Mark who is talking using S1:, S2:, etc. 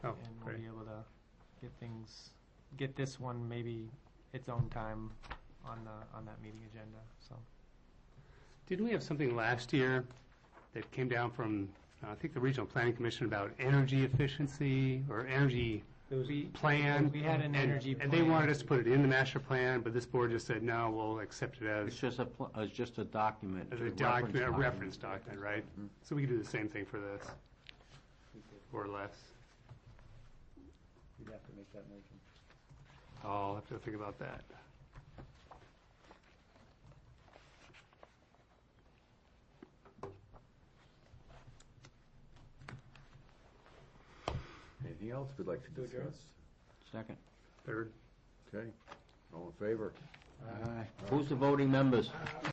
S1: Oh,
S2: Oh, things, get this one maybe its own time on the, on that meeting agenda, so.
S1: Didn't we have something last year that came down from, uh, I think, the Regional Planning Commission about energy efficiency or energy
S2: We,
S1: plan?
S2: we had an
S1: And-
S2: energy
S1: And they
S2: plan.
S1: wanted us to put it in the master plan, but this board just said, no, we'll accept it
S3: It's
S1: as,
S3: just a, pl- it's just a document.
S1: as a document, a reference document, right?
S2: Mm-hmm.
S1: So we could do the same thing for this, or less.
S4: You'd have to make that motion.
S1: I'll have to think about that.
S5: Anything else we'd like to
S4: To adjourn?
S5: discuss?
S3: Second.
S1: Third.
S5: Okay, all in favor?
S3: Who's the voting members?